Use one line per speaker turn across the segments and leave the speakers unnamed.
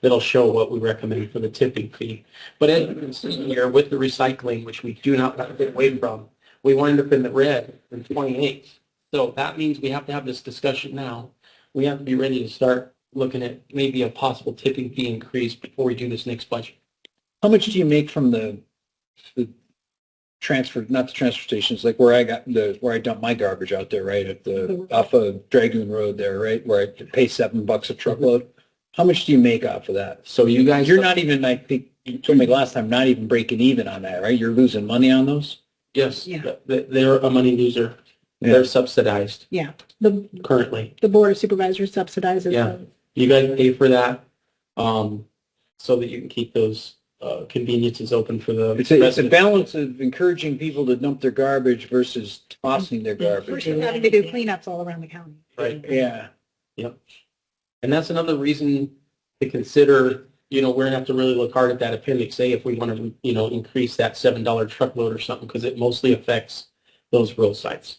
that'll show what we recommend for the tipping fee. But as you can see here, with the recycling, which we do not want to get away from, we wind up in the red in 28. So that means we have to have this discussion now. We have to be ready to start looking at maybe a possible tipping fee increase before we do this next budget.
How much do you make from the, the transfer, not the transfer stations, like where I got the, where I dump my garbage out there, right? At the, off of Dragoon Road there, right? Where I pay seven bucks a truckload. How much do you make off of that?
So you guys.
You're not even, I think, you told me last time, not even breaking even on that, right? You're losing money on those?
Yes,
Yeah.
th- th- they're a money loser.
Yeah.
They're subsidized
Yeah, the,
currently.
the board of supervisors subsidizes
Yeah.
them.
You guys pay for that, um, so that you can keep those, uh, conveniences open for the
It's a, it's a
residents.
balance of encouraging people to dump their garbage versus tossing their
We're
garbage.
having to do cleanups all around the county.
Right.
Yeah.
And that's another reason to consider, you know, we're gonna have to really look hard at that appendix A if we want to, you know, increase that seven dollar truckload or something, because it mostly affects those rural sites.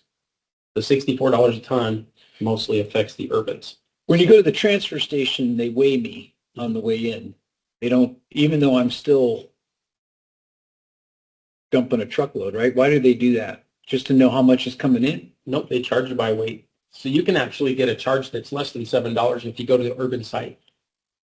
The sixty-four dollars a ton mostly affects the urbans.
When you go to the transfer station, they weigh me on the way in. They don't, even though I'm still dumping a truckload, right? Why do they do that? Just to know how much is coming in?
Nope, they charge you by weight. So you can actually get a charge that's less than seven dollars if you go to the urban site.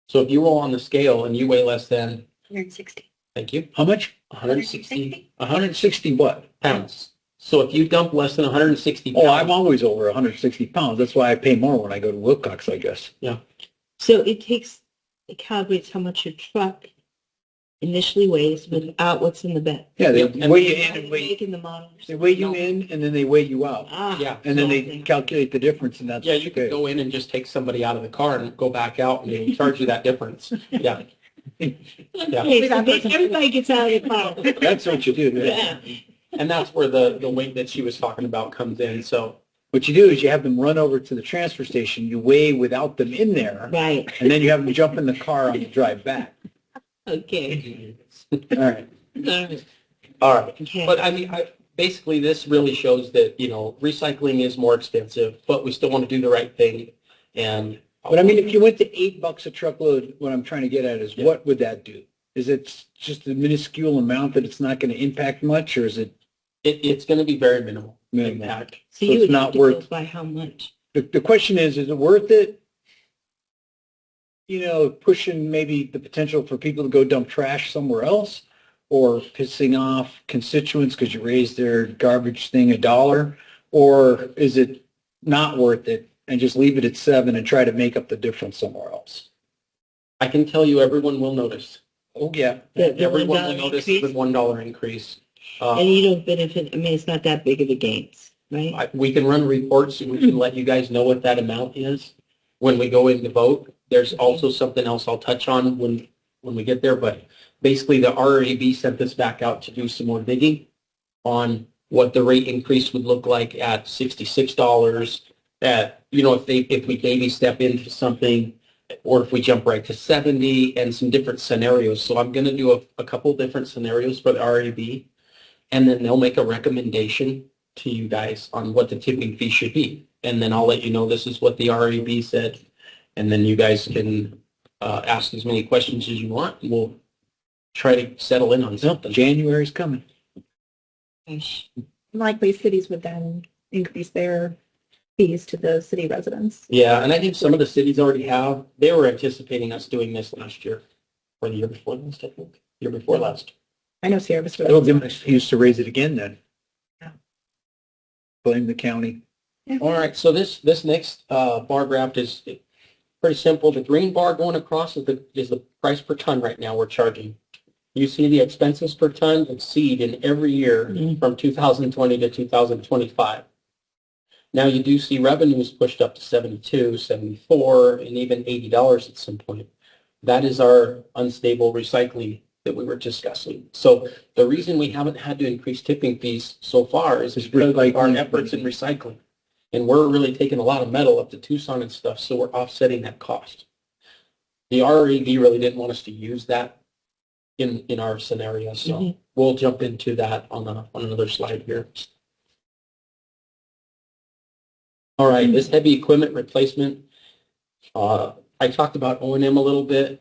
So if you roll on the scale and you weigh less than,
Hundred and sixty.
thank you,
How much?
160
160 what?
pounds. So if you dump less than 160
Oh,
pounds,
I'm always over 160 pounds. That's why I pay more when I go to Wilcox, I guess.
So it takes, it calibrates how much your truck initially weighs without what's in the bed.
Yeah, they
Yep, and-
weigh you in and weigh,
Making the model.
they weigh you in and then they weigh you out.
Ah.
yeah,
And then they
Something.
calculate the difference and that's.
yeah, you could
okay.
go in and just take somebody out of the car and go back out and they charge you that difference. Yeah,
Okay, so they- everybody gets out of the car.
That's what you do.
Yeah.
and that's where the the weight that she was talking about comes in. So
What you do is you have them run over to the transfer station, you weigh without them in there,
Right,
and then you have them jump in the car on the drive back.
okay.
All right.
All right,
all right.
okay.
But I mean, I, basically, this really shows that, you know, recycling is more expensive, but we still want to do the right thing. And.
But I mean, if you went to eight bucks a truckload, what I'm trying to get at is
Yeah.
what would that do? Is it just a minuscule amount that it's not going to impact much, or is it
It, it's going to be very minimal
minimal?
impact.
So
it's
you would
not
have to
worth-
go by how much?
The, the question is, is it worth it? You know, pushing maybe the potential for people to go dump trash somewhere else or pissing off constituents because you raised their garbage thing a dollar? Or is it not worth it and just leave it at seven and try to make up the difference somewhere else?
I can tell you, everyone will notice.
Oh, yeah.
The- the
Everyone will
$1
notice
increase?
the one dollar increase.
And
Uh,
you don't benefit, I mean, it's not that big of a gain, right?
I- we can run reports and we can let you guys know what that amount is when we go in to vote. There's also something else I'll touch on when, when we get there, but basically the RAB sent this back out to do some more digging on what the rate increase would look like at sixty-six dollars, that, you know, if they, if we maybe step into something, or if we jump right to seventy, and some different scenarios. So I'm gonna do a, a couple different scenarios for the RAB, and then they'll make a recommendation to you guys on what the tipping fee should be. And then I'll let you know this is what the RAB said, and then you guys can, uh, ask as many questions as you want, and we'll try to settle in on something.
January's coming.
Gosh.
Likely cities would then increase their fees to the city residents.
Yeah, and I think some of the cities already have. They were anticipating us doing this last year, or the year before last, I think, year before last.
I know Sierra Vista.
They'll give them an excuse to raise it again then.
Yeah.
Blame the county.
All right, so this, this next uh, bar graph is pretty simple. The green bar going across is the, is the price per ton right now we're charging. You see the expenses per ton exceed in every year
Mhm.
from 2020 to 2025. Now you do see revenues pushed up to 72, 74, and even $80 at some point. That is our unstable recycling that we were discussing. So the reason we haven't had to increase tipping fees so far is
Is
because of our
recycling.
efforts in recycling. And we're really taking a lot of metal up to Tucson and stuff, so we're offsetting that cost. The RED really didn't want us to use that in, in our scenario, so
Mhm.
we'll jump into that on, a, on another slide here. All right, this heavy equipment replacement, uh, I talked about O and M a little bit.